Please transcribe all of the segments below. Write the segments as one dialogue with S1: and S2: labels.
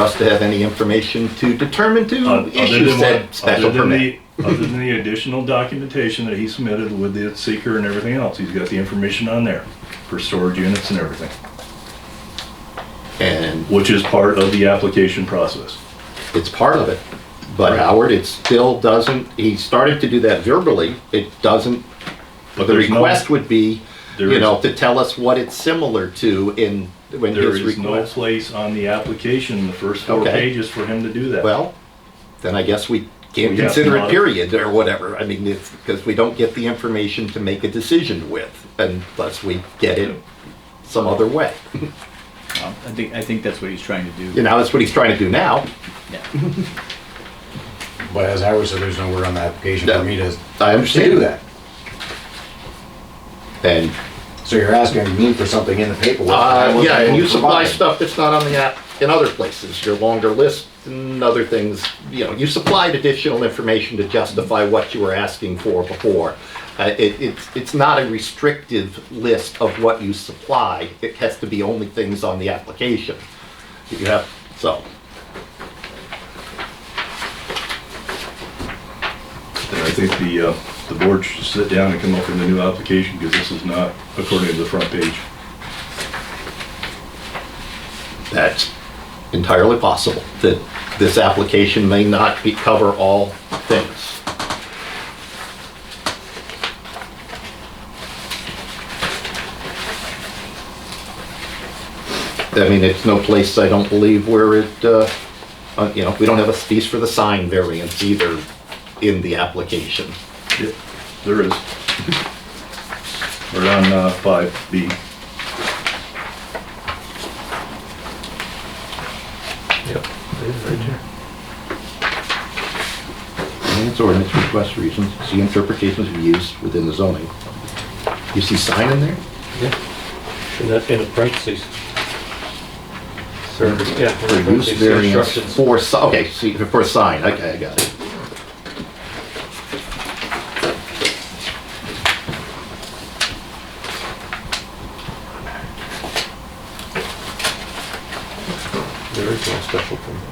S1: us to have any information to determine
S2: Oth-
S1: to
S2: Uh, Other
S1: issue
S2: than
S1: said
S2: what-
S1: special
S2: other than
S1: permit.
S2: the- other than the additional documentation that he submitted with the seeker and everything else, he's got the information on there for storage units and everything,
S1: And
S2: which is part of the application process.
S1: it's part of it. But Howard, it still doesn't, he started to do that verbally, it doesn't,
S2: But
S1: the
S2: there's no-
S1: request would be,
S2: There
S1: you
S2: is-
S1: know, to tell us what it's similar to in, when
S2: There
S1: his
S2: is no
S1: request.
S2: place on the application, the first four
S1: Okay.
S2: pages, for him to do that.
S1: Well, then I guess we can't
S2: We have
S1: consider
S2: to
S1: it period or whatever. I mean, it's, because we don't get the information to make a decision with unless we get it some other way.
S3: Um, I think, I think that's what he's trying to do.
S1: You know, that's what he's trying to do now.
S3: Yeah.
S4: But as Howard said, there's nowhere on the application
S1: No.
S4: for me to
S1: I
S4: to do
S1: understand that.
S4: that.
S1: And,
S4: So you're asking me for something in the paperwork. that I
S1: uh,
S4: wasn't
S1: yeah, and
S4: able
S1: you
S4: to
S1: supply
S4: provide.
S1: stuff that's not on the app in other places, your longer list and other things. You know, you supplied additional information to justify what you were asking for before. Uh, it, it's, it's not a restrictive list of what you supply. It has to be only things on the application. that You have, so,
S2: And I think the, uh, the board should sit down and come up with a new application, because this is not according to the front page.
S1: that's entirely possible, that this application may not be, cover all things. I mean, it's no place, I don't believe, where it, uh, uh, you know, we don't have a space for the sign variance either in the application.
S2: Yep, there is. We're on uh, five B.
S1: It's ordinance request reasons, see interpretations of use within the zoning. You see sign in there?
S5: In the, in the parentheses. Service, yeah. in the
S1: For use
S5: parentheses,
S1: variance
S5: instructions.
S1: for, si- okay, see, for a sign, okay, I got it.
S5: There is no special permit.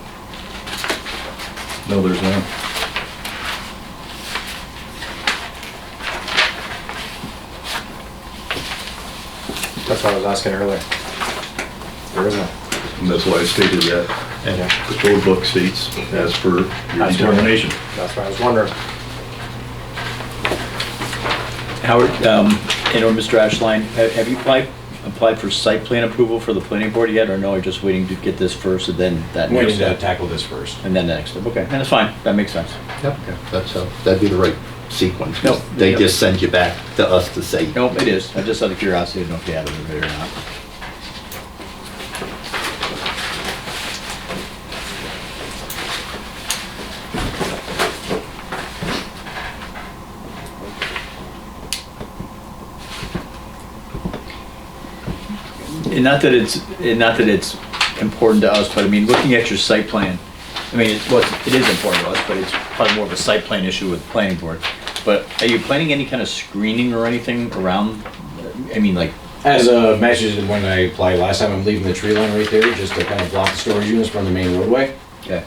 S2: No, there's none.
S4: That's what I was asking earlier. There isn't.
S2: And that's why I stated that.
S4: Yeah,
S2: The code book states as per your
S4: As per-
S2: determination.
S4: that's what I was wondering.
S3: Howard, um, and or Mr. Ashline, ha- have you applied, applied for site plan approval for the planning board yet, or no, are just waiting to get this first and then that
S4: I'm
S3: next
S4: waiting to
S3: step?
S4: tackle this first.
S3: And then the next step, okay, that's fine, that makes sense.
S1: Yep. That's, how- that'd be the right sequence, 'cause
S3: Nope.
S1: they
S3: Yep.
S1: just send you back to us to say,
S3: Nope, it is, I just out of curiosity, I didn't know if you had it or not. And not that it's, and not that it's important to us, but I mean, looking at your site plan, I mean, it's, well, it is important to us, but it's probably more of a site plan issue with the planning board. But are you planning any kind of screening or anything around, I mean, like,
S4: As a message that when I applied last time, I'm leaving the tree line right there just to kind of block the storage units from the main roadway.
S3: yeah.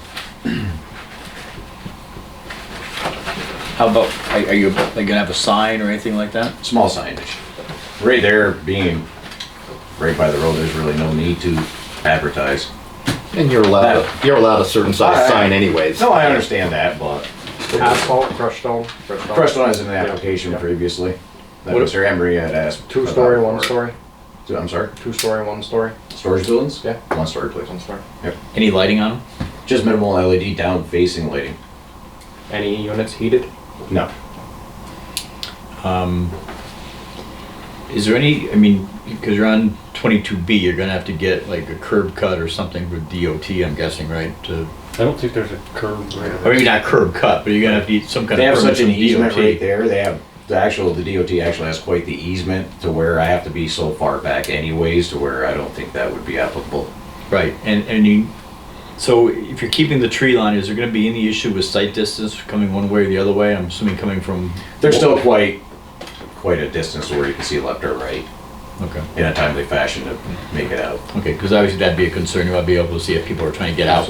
S3: How about, are are you, like, gonna have a sign or anything like that?
S4: Small signage. Right there being right by the road, there's really no need to advertise.
S1: and you're allowed, a- you're allowed a certain size
S4: Alright.
S1: sign anyways.
S4: No, I understand that, but
S6: Asphalt, crushed stone, crushed stone.
S4: Crestone is in the application previously. That
S6: What-
S4: Mr. Embry had asked.
S6: Two-story,
S4: about
S6: one
S4: for-
S6: story,
S4: Two- I'm sorry,
S6: two-story, one story,
S4: storage buildings?
S6: Yeah.
S4: One story, please.
S6: one story.
S3: Any lighting on them?
S4: Just minimal LED down facing lighting.
S6: Any units heated?
S4: No.
S3: Is there any, I mean, because you're on 22B, you're gonna have to get like a curb cut or something with DOT, I'm guessing, right? To,
S5: I don't think there's a curve right
S3: or maybe not curb cut, but you're gonna have to get some kind
S4: They
S3: of
S4: have
S3: permit
S4: such an
S3: from
S4: easement right
S3: DOT.
S4: there, they have, the actual, the DOT actually has quite the easement to where I have to be so far back anyways to where I don't think that would be applicable.
S3: Right, and, and you, so if you're keeping the tree line, is there gonna be any issue with sight distance coming one way or the other way? I'm assuming coming from.
S4: There's still quite, quite a distance to where you can see left or right
S3: Okay,
S4: in a timely fashion to make it out.
S3: okay, because obviously that'd be a concern, you might be able to see if people are trying to get out,